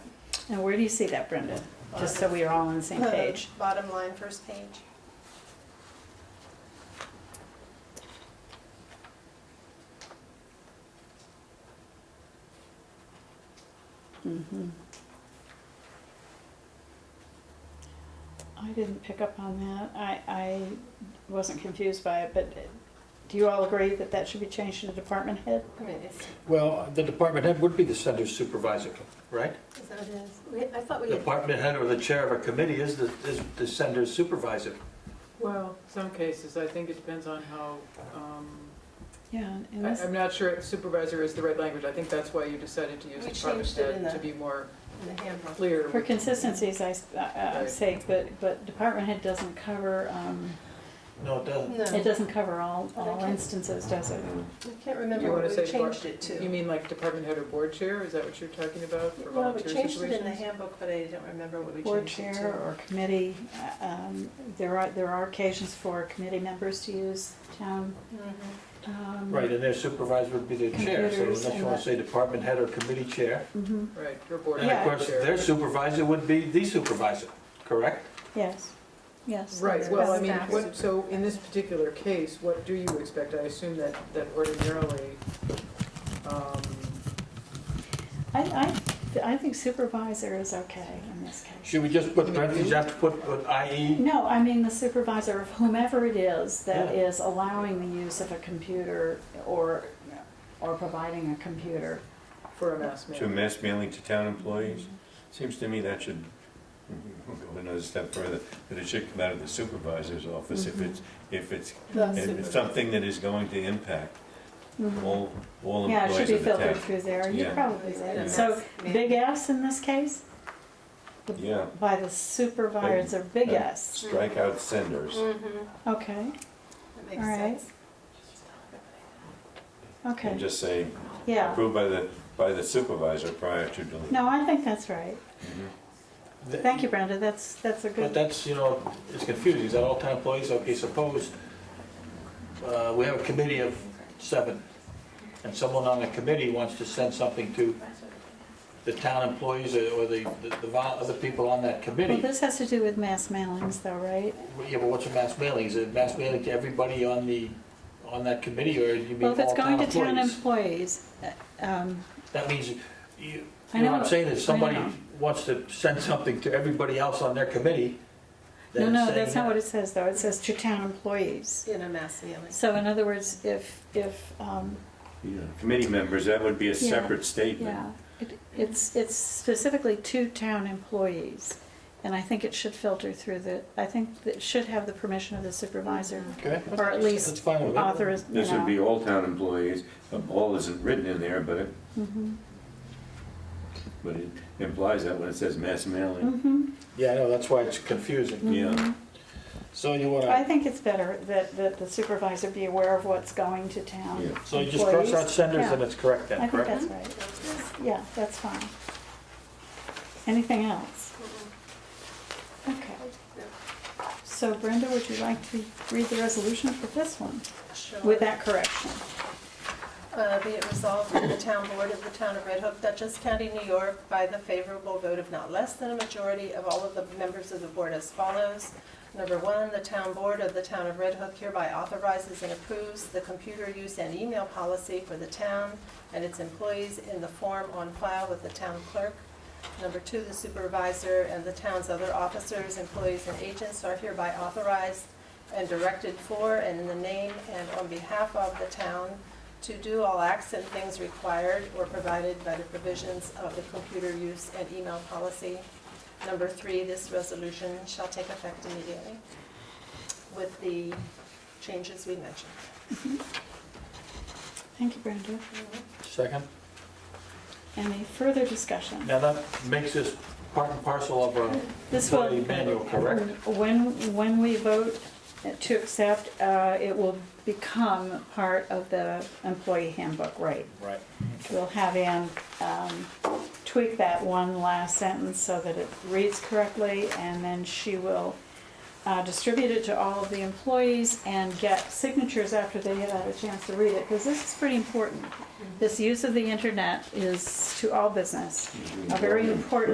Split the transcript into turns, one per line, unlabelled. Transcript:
Now, where do you see that, Brenda? Just so we are all on the same page.
Bottom line, first page.
Mhm. I didn't pick up on that. I, I wasn't confused by it, but do you all agree that that should be changed to department head?
I mean, it's,
Well, the department head would be the center supervisor, right?
is that what it is? We, I thought we
The
had,
Department head or the chair of a committee is the, is the center supervisor.
Well, some cases, I think it depends on how, um,
Yeah, in
I-
this,
I'm not sure if supervisor is the right language. I think that's why you decided to use
We
department
changed it in
head to
the-
be more
in the handbook.
clear.
for consistencies, I, s- I- I
Right.
say, but, but department head doesn't cover, um,
No, it doesn't.
No,
it doesn't cover all,
I
all
can't-
instances, does it?
Mm-hmm.
I can't
You
remember
wanna
what we
say
changed
depart-
it
You
to.
mean like department head or board chair? Is that what you're talking about for
Well, we
volunteer
changed it in the
situations?
handbook, but I don't remember what we
Board
changed it
chair
to.
or committee, uh, um, there are, there are occasions for committee members to use town,
Mhm.
um.
Right, and their supervisor would be their chair, so
Computers
unless you
and
want
that.
to say department head or committee chair.
mhm,
Right, or board
And of
Yeah.
head or
course,
chair.
their supervisor would be the supervisor, correct?
yes, yes.
Right, well, I mean,
Staff.
what, so in this particular case, what do you expect? I assume that, that ordinarily, um,
I, I, I think supervisor is okay in this case.
Should we just put parentheses after put, put E. IE?
No, I mean, the supervisor of whomever it is that
Yeah.
is allowing the use of a computer or, or providing a computer.
for a mass
To
man.
mass mailing to town employees? Seems to me that should go another step further, that it should come out of the supervisor's office if
Mm-hmm.
it's, if it's,
The
if it's something that is going to impact
Mhm.
all, all
Yeah, it should
employees
be
of the
filtered
town.
through there, you're
Yeah.
probably
Yeah.
right. So,
Yeah.
big S in this case?
Yeah.
By the supervisor, big
Big.
S,
Strike out senders.
Mhm.
okay,
That makes
All right.
sense.
And
okay,
just say,
yeah.
approved by the, by the supervisor prior to delivery.
No, I think that's right.
Mhm.
Thank you, Brenda, that's, that's a
But
good,
that's, you know, it's confusing, is that all town employees? Okay, suppose uh, we have a committee of seven, and someone on the committee wants to send something to the town employees or or the, the the vol- other people on that
well,
committee.
this has to do with mass mailings though, right?
Yeah, but what's a mass mailing? Is it mass mailing to everybody on the, on that committee, or do you mean
Well,
all
if it's
town
going to town
employees?
employees, uh, um,
That means, you, you
I
know what I'm
know,
saying, if somebody
know.
wants to send something to everybody else on their committee,
no,
then it's
no,
saying
that's not
that.
what it says though, it says to town employees.
In a mass mailing.
So in other words, if, if, um,
Yeah. Committee members, that would be a
Yeah.
separate statement.
yeah, it- it's, it's specifically to town employees. And I think it should filter through the, I think that it should have the permission of the supervisor,
Okay,
or at least
that's fine with it.
authorize, you
This would be
know.
all town employees, Um, all isn't written in there, but it,
Mhm.
but it implies that when it says mass mailing.
Mhm.
Yeah, I know, that's why it's confusing.
Yeah.
So you
Mm-hmm. I
wanna,
think it's better that, that the supervisor be aware of what's going to town.
Yeah.
so you just cross out
employees?
senders
Yeah.
and it's correct
I
then,
think
correct?
that's right. Yeah, that's fine. Anything else? Okay.
No.
So Brenda, would you like to read the resolution for this one
Sure.
with that correction?
Uh, Be it resolved that the town board of the town of Red Hook, Dutchess County, New York, by the favorable vote of not less than a majority of all of the members of the board as follows. Number one, the town board of the town of Red Hook hereby authorizes and approves the computer use and email policy for the town and its employees in the form on file with the town clerk. Number two, the supervisor and the town's other officers, employees, and agents are hereby authorized and directed for and in the name and on behalf of the town to do all acts and things required or provided by the provisions of the computer use and email policy. Number three, this resolution shall take effect immediately with the changes we mentioned.
Thank you, Brenda.
Second?
Any further discussion?
Now that makes this part and parcel of a
This will,
employee manual, correct?
when, when we vote to accept, uh, it will become part of the employee handbook, right?
Right.
We'll have Ann um, tweak that one last sentence so that it reads correctly, and then she will uh, distribute it to all of the employees and get signatures after they have had a chance to read it, because this is pretty important. This use of the internet is to all business Mm. a very important